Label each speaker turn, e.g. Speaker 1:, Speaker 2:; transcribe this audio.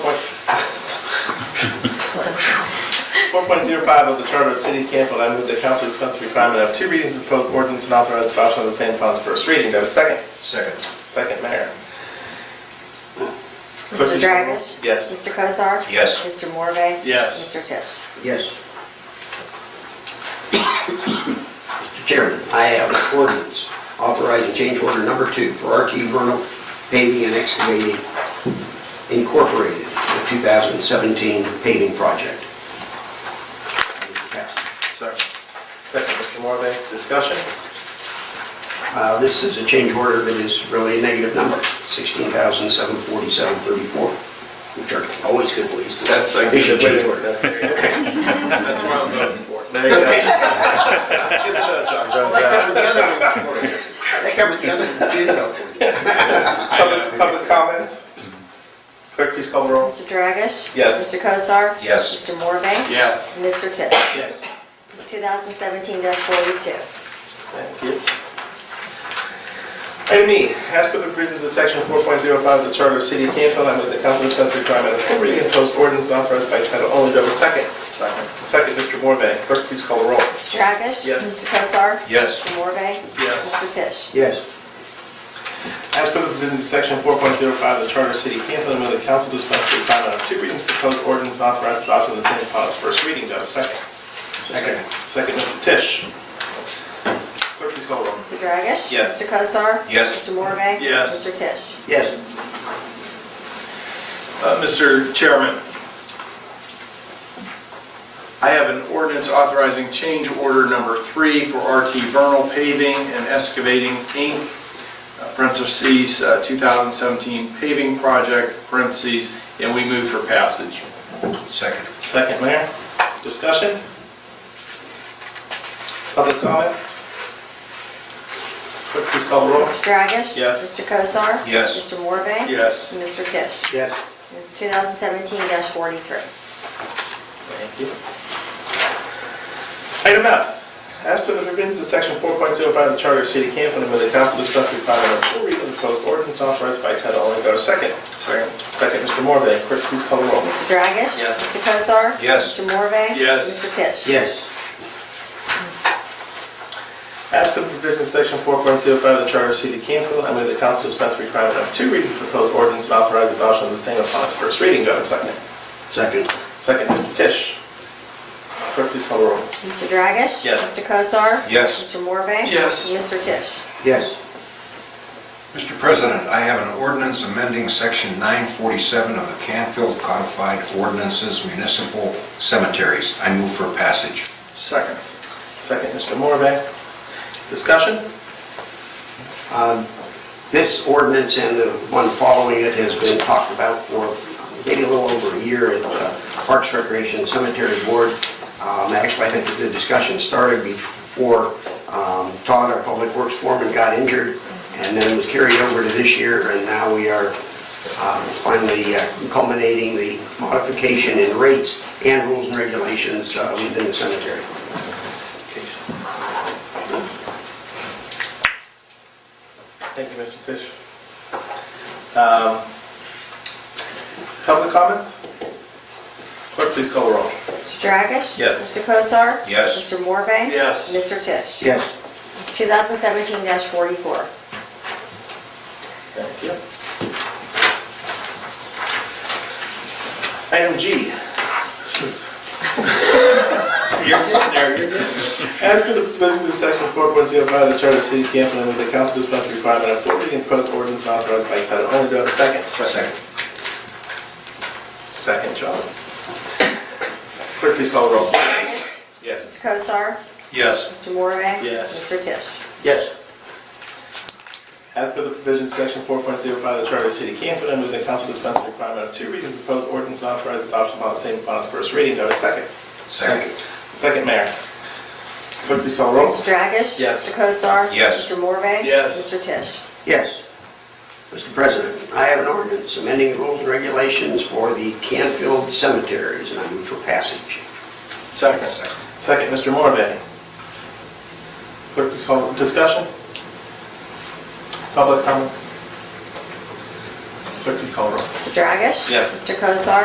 Speaker 1: 1.05 of the Charter of the City of Campbell, I move that council dispense with requirement of two readings of the proposed ordinance and authorize adoption of the same upon its first reading. Do I have a second?
Speaker 2: Second.
Speaker 1: Second, Mayor.
Speaker 3: Mr. Dragish?
Speaker 1: Yes.
Speaker 3: Mr. Cosar?
Speaker 2: Yes.
Speaker 3: Mr. Morve?
Speaker 4: Yes.
Speaker 3: Mr. Tisch?
Speaker 5: Yes. Mr. Chairman, I have an ordinance authorizing change order number two for RT Vernal Paving and Excavating Incorporated, the 2017 paving project. Pass.
Speaker 1: Second. Second, Mr. Morbe. Discussion?
Speaker 5: Uh, This is a change order that is really a negative number, 16,747.34, which are always good ways to...
Speaker 1: That's like-
Speaker 5: They should change order.
Speaker 1: That's- That's what I'm voting for. There you go.
Speaker 5: Okay.
Speaker 1: Get the vote, John.
Speaker 5: That covered the other one. That covered the other one.
Speaker 1: Public public comments? Clerk, please call the roll.
Speaker 3: Mr. Dragish?
Speaker 1: Yes.
Speaker 3: Mr. Cosar?
Speaker 2: Yes.
Speaker 3: Mr. Morve?
Speaker 4: Yes.
Speaker 3: Mr. Tisch?
Speaker 1: Yes.
Speaker 3: 2017-42.
Speaker 1: Thank you. Item E, as per the provisions of section 4.05 of the Charter of the City of Campbell, I move that council dispense with requirement of full reading of proposed ordinance authorized by title only. Do I have a second? Second. Second, Mr. Morbe. Clerk, please call the roll.
Speaker 3: Mr. Dragish?
Speaker 1: Yes.
Speaker 3: Mr. Cosar?
Speaker 2: Yes.
Speaker 3: Mr. Morve?
Speaker 4: Yes.
Speaker 3: Mr. Tisch?
Speaker 5: Yes.
Speaker 1: As per the provisions of section 4.05 of the Charter of the City of Campbell, I move that council dispense with requirement of two readings of the proposed ordinance and authorize adoption of the same upon its first reading. Do I have a second?
Speaker 5: Second.
Speaker 1: Second, Mr. Tisch. Clerk, please call the roll.
Speaker 3: Mr. Dragish?
Speaker 1: Yes.
Speaker 3: Mr. Cosar?
Speaker 2: Yes.
Speaker 3: Mr. Morve?
Speaker 4: Yes.
Speaker 3: Mr. Tisch?
Speaker 5: Yes.
Speaker 4: Uh, Mr. Chairman, I have an ordinance authorizing change order number three for RT Vernal Paving and Excavating, Inc., uh, parentheses, uh, 2017 paving project, parentheses, and we move for passage.
Speaker 2: Second.
Speaker 1: Second, Mayor. Discussion? Public comments? Clerk, please call the roll.
Speaker 3: Mr. Dragish?
Speaker 1: Yes.
Speaker 3: Mr. Cosar?
Speaker 2: Yes.
Speaker 3: Mr. Morve?
Speaker 4: Yes.
Speaker 3: And Mr. Tisch?
Speaker 5: Yes.
Speaker 3: It's 2017-43.
Speaker 1: Thank you. Item F, as per the provisions of section 4.05 of the Charter of the City of Canfield, I move that council dispense with requirement of full reading of the proposed ordinance authorized by title only. Go to second.
Speaker 4: Second.
Speaker 1: Second, Mr. Morbe. Clerk, please call the roll.
Speaker 3: Mr. Dragish?
Speaker 1: Yes.
Speaker 3: Mr. Cosar?
Speaker 2: Yes.
Speaker 3: Mr. Morve?
Speaker 4: Yes.
Speaker 3: Mr. Tisch?
Speaker 5: Yes.
Speaker 1: As per the provisions of section 4.05 of the Charter of the City of Canfield, I move that council dispense with requirement of two readings of the proposed ordinance and authorize adoption of the same upon its first reading. Go to second.
Speaker 5: Second.
Speaker 1: Second, Mr. Tisch. Clerk, please call the roll.
Speaker 3: Mr. Dragish?
Speaker 1: Yes.
Speaker 3: Mr. Cosar?
Speaker 2: Yes.
Speaker 3: Mr. Morve?
Speaker 4: Yes.
Speaker 3: And Mr. Tisch?
Speaker 5: Yes.
Speaker 2: Mr. President, I have an ordinance amending Section 947 of the Canfield Codified Ordinances Municipal Cemeteries. I move for passage.
Speaker 4: Second.
Speaker 1: Second, Mr. Morvay. Discussion?
Speaker 5: Um, This ordinance and the one following it has been talked about for maybe a little over a year at the Parks Recreation and Cemetery Board. Um, Actually, I think that the discussion started before um, Todd, our Public Works foreman, got injured, and then it was carried over to this year, and now we are um, finally uh, culminating the modification in rates and rules and regulations uh, within the cemetery.
Speaker 1: Thank you, Mr. Tisch. Um, Public comments? Clerk, please call the roll.
Speaker 3: Mr. Dragish?
Speaker 1: Yes.
Speaker 3: Mr. Cosar?
Speaker 2: Yes.
Speaker 3: Mr. Morve?
Speaker 4: Yes.
Speaker 3: Mr. Tisch?
Speaker 5: Yes.
Speaker 3: It's 2017-44.
Speaker 1: Thank you. Item G. Jeez. You're getting there, you're getting there. As per the provisions of section 4.05 of the Charter of the City of Canfield, I move that council dispense with the requirement of full reading of proposed ordinance and authorize by title only. Do I have a second?
Speaker 2: Second.
Speaker 1: Second, John. Clerk, please call the roll.
Speaker 3: Dragish?
Speaker 1: Yes.
Speaker 3: Mr. Cosar?
Speaker 2: Yes.
Speaker 3: Mr. Morve?
Speaker 1: Yes.
Speaker 3: Mr. Tisch?
Speaker 5: Yes.
Speaker 1: As per the provisions of section 4.05 of the Charter of the City of Canfield, I move that council dispense with the requirement of two readings of proposed ordinance and authorize adoption upon the same upon its first reading. Do I have a second?
Speaker 2: Second.
Speaker 1: Second, Mayor. Clerk, please call roll.
Speaker 3: Mr. Dragish?
Speaker 1: Yes.
Speaker 3: Mr. Cosar?
Speaker 2: Yes.
Speaker 3: Mr. Morve?
Speaker 4: Yes.
Speaker 3: Mr. Tisch?
Speaker 5: Yes. Mr. President, I have an ordinance amending rules and regulations for the Canfield cemeteries, and I move for passage.
Speaker 4: Second.
Speaker 1: Second, Mr. Morbe. Clerk, please call, discussion? Public comments? Clerk, please call roll.
Speaker 3: Mr. Dragish?
Speaker 1: Yes.
Speaker 3: Mr. Cosar?